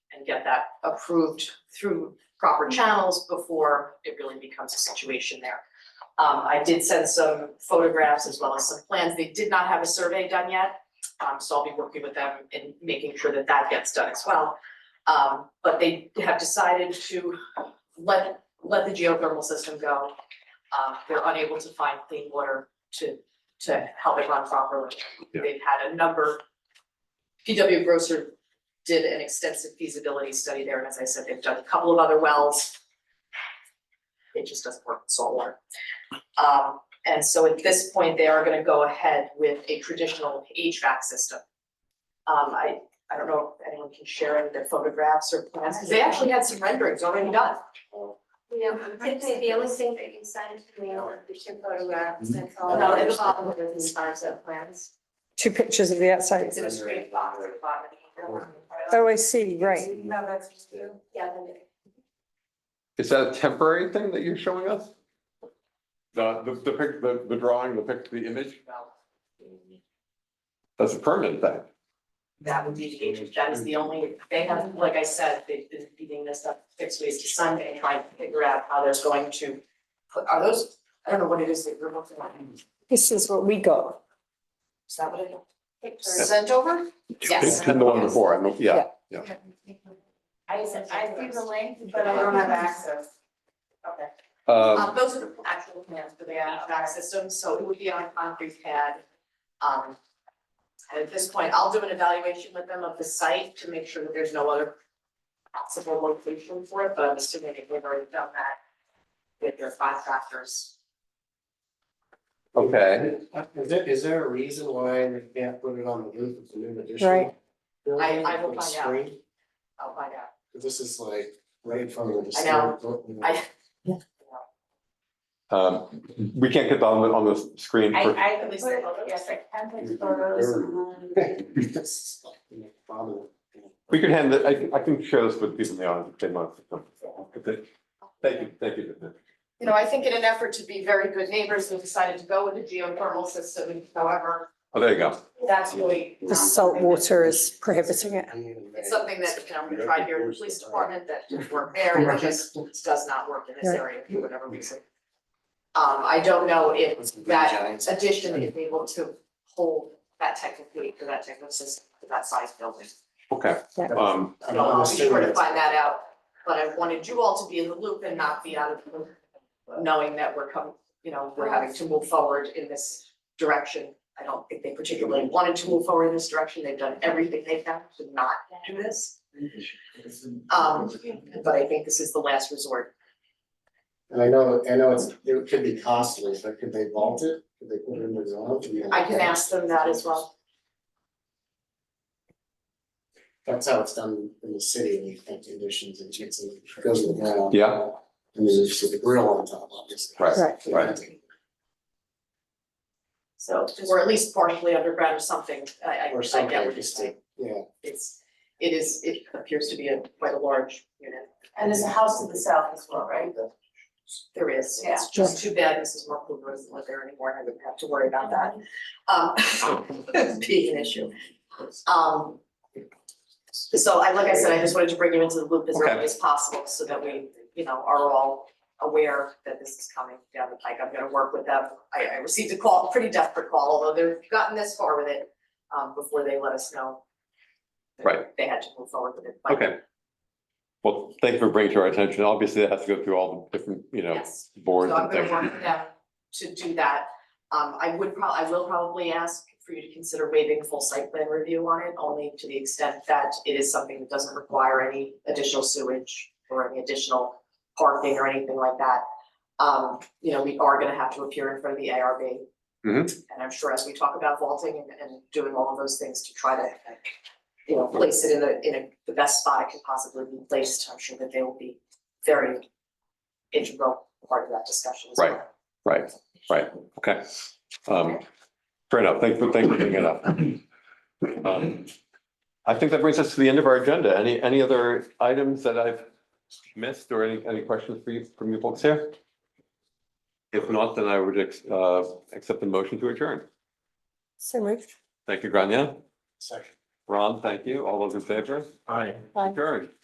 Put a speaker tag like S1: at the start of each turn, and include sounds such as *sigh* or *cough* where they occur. S1: and get that approved through proper channels before it really becomes a situation there. Um, I did send some photographs as well as some plans. They did not have a survey done yet. Um, so I'll be working with them and making sure that that gets done as well. Um, but they have decided to let, let the geothermal system go. Uh, they're unable to find clean water to, to help it run properly.
S2: Yeah.
S1: They've had a number. PW Grosser did an extensive feasibility study there, and as I said, they've done a couple of other wells. It just doesn't work with salt water. Um, and so at this point, they are gonna go ahead with a traditional HVAC system. Um, I, I don't know if anyone can share any of their photographs or plans, because they actually had some renderings already done.
S3: Yeah, particularly the only thing that you sent to me are the two photographs, that's all.
S1: No, it was-
S3: All of those in terms of plans.
S4: two pictures of the outside.
S3: It was great.
S4: Oh, I see, right.
S3: No, that's just you. Yeah, then it-
S2: Is that a temporary thing that you're showing us? The, the, the pic, the, the drawing, the pic, the image, that's a permanent thing.
S1: That would be the age, that is the only, they have, like I said, they've been beating this up six ways to Sunday, trying to figure out how they're going to. put- Are those, I don't know what it is that you're looking at,
S4: This is what we got.
S1: is that what it
S3: pictures.
S1: is? Sent over? Yes.
S2: It's been the one before, I know, yeah,
S3: I said, I see the link, but I don't have access.
S1: Okay. Um,
S2: um,
S1: those are the actual plans for the HVAC system, so it would be on a concrete pad. Um, and at this point, I'll do an evaluation with them of the site to make sure that there's no other possible location for it, but I'm assuming they've already done that with their contractors.
S2: okay,
S5: Is there, is there a reason why they can't put it on the roof of the new addition?
S4: Right.
S5: building
S1: I- I will
S5: with a
S1: find out.
S5: screen?
S1: I'll find out.
S5: 'Cause This is like right in front of the.
S1: I know.
S5: store.
S1: I-
S2: um, we can't get on the, on the screen
S3: I,
S2: for,
S3: I can put, yes, I can put photos on.
S5: *laughs* This is like
S4: *laughs*
S5: problem.
S2: we could hand it, I, I can share this with people in the audience if they want. Thank you, thank you.
S1: You know, I think in an effort to be very good neighbors, we decided to go with the geothermal system, however,
S2: Oh, there you go.
S1: that's really.
S4: The salt water is prohibiting it.
S1: It's something that, you know, we tried here in the police department that didn't work there, and it just does not work in this area for whatever reason. Um, I don't know if that addition is able to hold that type of weight for that type of system, for that size building.
S2: Okay, um,
S1: So I'll be sure to find that out, but I wanted you all to be in the loop and not be out of the loop, knowing that we're coming, you know, we're having to move forward in this direction. I don't think they particularly wanted to move forward in this direction, they've done everything they can to not do this. Um, but I think this is the last resort.
S5: And I know, I know it's, it could be costly, but could they vault it? Could they put it in the zone? Could we-
S1: I can ask them that as well.
S5: That's how it's done in the city, when you think conditions and chits and goes to the ground.
S2: Yeah.
S5: And there's just a grill on top, obviously.
S2: Right,
S4: Right.
S2: right.
S1: So, or at least partially underground or something, I, I,
S5: Or
S1: I
S5: something,
S1: get what you're
S5: just
S1: saying.
S5: to, yeah.
S1: It's, it is, it appears to be a, quite a large unit.
S3: And there's a house to the south as well, right?
S1: There is, it's
S4: Yeah.
S1: just too bad Mrs. Markle doesn't live there anymore, and I wouldn't have to worry about that. Um, *laughs* being an issue. Um, so I, like I said, I just wanted to bring you into the loop as
S2: Okay.
S1: early as possible, so that we, you know, are all aware that this is coming down the pike. I'm gonna work with them. I, I received a call, pretty desperate call, although they've gotten this far with it, um, before they let us know. that
S2: Right.
S1: They had to move forward with it. but-
S2: okay. Well, thank you for bringing to our attention. Obviously, it has to go through all the different, you know,
S1: Yes.
S2: boards
S1: So I'm
S2: and
S1: gonna
S2: things.
S1: work with them to do that. Um, I would prob, I will probably ask for you to consider waiving full site plan review on it, only to the extent that it is something that doesn't require any additional sewage or any additional parking or anything like that. Um, you know, we are gonna have to appear in front of the ARB.
S2: Mhm.
S1: And I'm sure as we talk about vaulting and, and doing all of those things to try to, you know, place it in the, in a, the best spot it can possibly be placed, I'm sure that they will be very integral part of that discussion as well.
S2: Right. Right, right, okay. Um, fair enough, thanks for, thanks for bringing it up. Um, I think that brings us to the end of our agenda. Any, any other items that I've missed or any, any questions for you, from you folks here? If not, then I would, ex- uh, accept the motion to adjourn.
S4: So moved.
S2: Thank you, Grania.
S5: Second.
S2: Ron, thank you. All those in favor?
S5: Aye.
S4: Aye.
S2: Adjourn.